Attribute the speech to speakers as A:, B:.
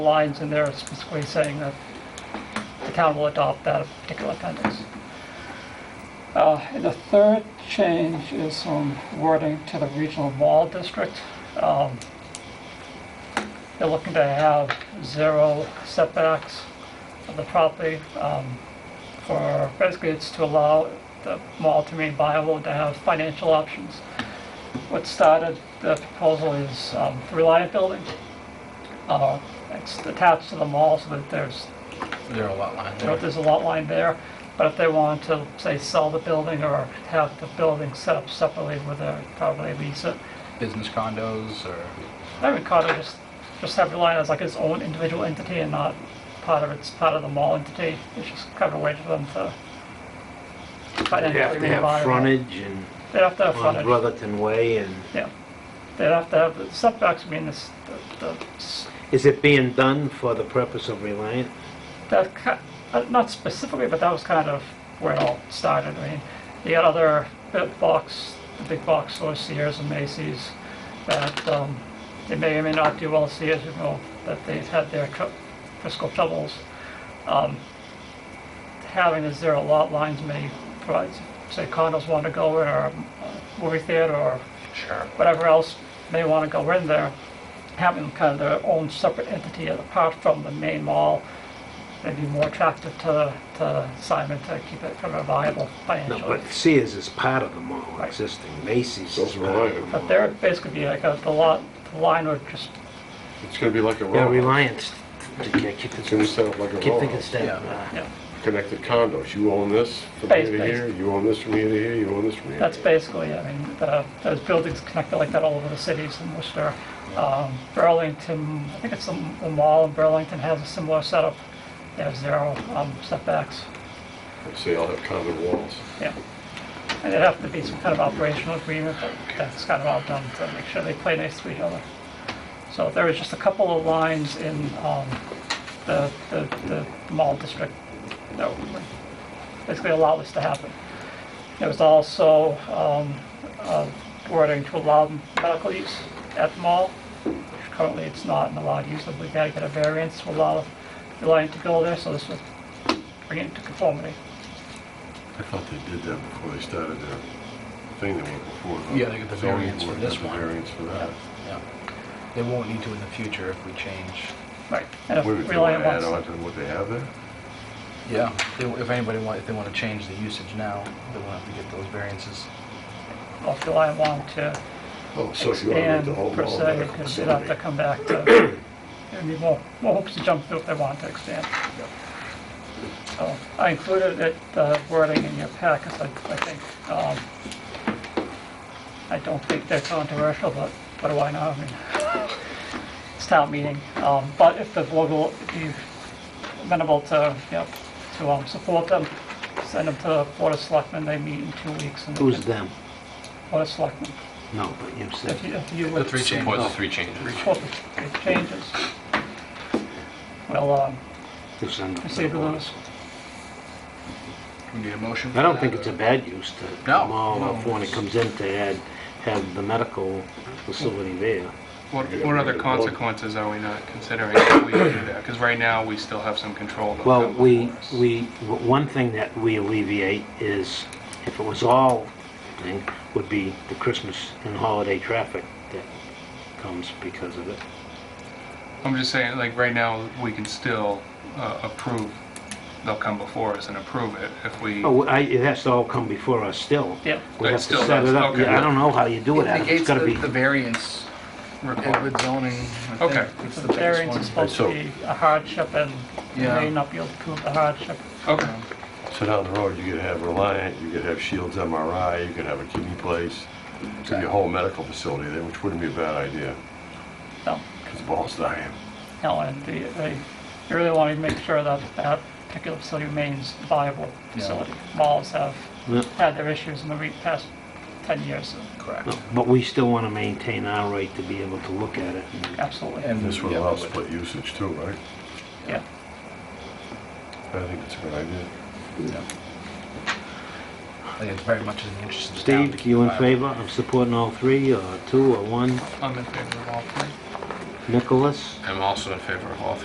A: lines in there specifically saying that the town will adopt that particular appendix. Uh, and The third change is some wording to the regional mall district. Um, They're looking to have zero setbacks of the property um, for, basically it's to allow the mall to remain viable, to have financial options. What started the proposal is um, the Reliant Building. Uh, It's attached to the mall so that there's
B: There are a lot line
A: you know,
B: there.
A: there's a lot line there, but if they wanted to, say, sell the building or have the building set up separately with their, probably lease it,
B: Business condos or,
A: I would kind of just, just have Reliant as like its own individual entity and not part of its, part of the mall entity, it's just kind of a way for them to
C: They have
A: financially
C: to have
A: revive. it.
C: frontage and
A: They have to have
C: on
A: frontage,
C: Brotherton Way and,
A: yeah. They'd have to have, the setbacks, I mean, this, the, the s-
C: is it being done for the purpose of Reliant?
A: That, ki- uh, not specifically, but that was kind of where it all started. I mean, you got other big box, the big box stores, Sears and Macy's, that um, they may or may not do well. Sears, you know, that they've had their tr- fiscal troubles. Um, Having the zero lot lines may provide, say condos want to go in, or a movie theater, or
B: sure,
A: whatever else may want to go in there, having kind of their own separate entity apart from the main mall, may be more attractive to, to Simon to keep it kind of viable
C: No,
A: financially.
C: but Sears is part of the mall
A: Right.
C: existing, Macy's is part of the
A: But
C: mall.
A: there would basically be like a, the lot, the line would just,
D: It's gonna be like a
C: Yeah,
D: row,
C: Reliant's, I keep
D: it's gonna be set up like a
C: keep
D: row,
C: thinking it's that,
B: Yeah.
C: uh,
A: you know,
D: connected condos, you own this from here to
A: Basically.
D: here, you own this from here to here, you own this from here. to
A: that's
D: here.
A: basically, I mean, the, those buildings connected like that all over the cities in Worcester. Um, Burlington, I think it's the the mall in Burlington has a similar setup. They have zero um, setbacks.
D: So they all have common walls.
A: Yeah. And there'd have to be some kind of operational agreement, but that's kind of all done to make sure they play nice to each other. So there was just a couple of lines in um, the, the, the mall district that would basically allow this to happen. There was also um, uh, wording to allow medical use at the mall. Currently, it's not an allowed use, but we had to get a variance to allow the line to go there, so this would bring it into conformity.
D: I thought they did that before they started their thing that went before.
B: Yeah, they got the
D: zoning
B: variance for
D: board
B: this
D: got the
B: one.
D: Variance for that.
B: yeah. They won't need to in the future if we change.
A: Right, and if
D: What if they wanna
A: Reliant
D: add
A: wants,
D: on to what they have there?
B: Yeah, they- if anybody want, if they want to change the usage now, they won't have to get those variances.
A: well, if Reliant wanted to
D: Oh, so if you wanna make
A: expand
D: the whole
A: per
D: mall
A: se,
D: medical
A: because they'd have to
D: facility.
A: come back to, it'd be more, more hoops to jump through if they wanted to expand. So I included it, the wording in your packets, I, I think, um, I don't think they're controversial, but what do I know? I mean, It's town meeting, um, but if the board will be amenable to, you know, to, um, support them, send them to Board of Selectmen, they meet in two weeks. and they
C: who's
A: can-
C: them?
A: Board of Selectmen.
C: No, but you said,
A: If you, if you
B: The
A: would
B: three
E: Support
B: changes.
E: the three changes.
A: support the changes, well, um,
C: it's on the
A: receive those.
B: We need a motion?
C: I don't think it's a bad use to the
B: No.
C: mall, or when it comes in to add, have the medical facility there.
E: What, what other consequences are we not considering if we do that? Because right now, we still have some control. that
C: Well,
E: comes
C: we,
E: for us.
C: we, w- one thing that we alleviate is, if it was all thing, would be the Christmas and holiday traffic that comes because of it.
E: I'm just saying, like, right now, we can still uh, approve, they'll come before us and approve it if we,
C: Oh, I, it has to all come before us still.
A: Yeah.
C: We
E: Right,
C: have to
E: still,
C: set it up.
E: okay.
C: Yeah, I don't know how you do it, Adam. It's
B: Negates
C: gotta
B: the
C: be,
B: the variance
E: Require-
B: with zoning. I think
E: Okay.
B: It's
A: The
B: the biggest
A: variance is
B: one.
A: supposed to
D: So-
A: be a hardship and you
B: Yeah.
A: may not be able to prove the hardship.
E: okay,
D: So down the road, you could have Reliant, you could have Shields MRI, you could have a kidney place, it could be a whole medical facility there, which wouldn't be a bad idea,
A: No,
D: because the ball's dying.
A: no, and the, they, you really want to make sure that that particular facility remains a viable facility. Malls have
C: Yeah.
A: had their issues in the re- past ten years,
B: Correct.
C: but we still wanna maintain our right to be able to look at it. and-
A: absolutely,
B: And
D: This would
B: yeah,
D: allow
B: we would.
D: split usage too, right?
A: yeah.
D: I think it's a good idea.
B: Yeah. I think it's very much in the interest of the town.
C: Steve, you in
B: Uh,
C: favor of supporting all three, or two, or one?
E: I'm in favor of all three.
C: Nicholas?
E: I'm also in favor of all three.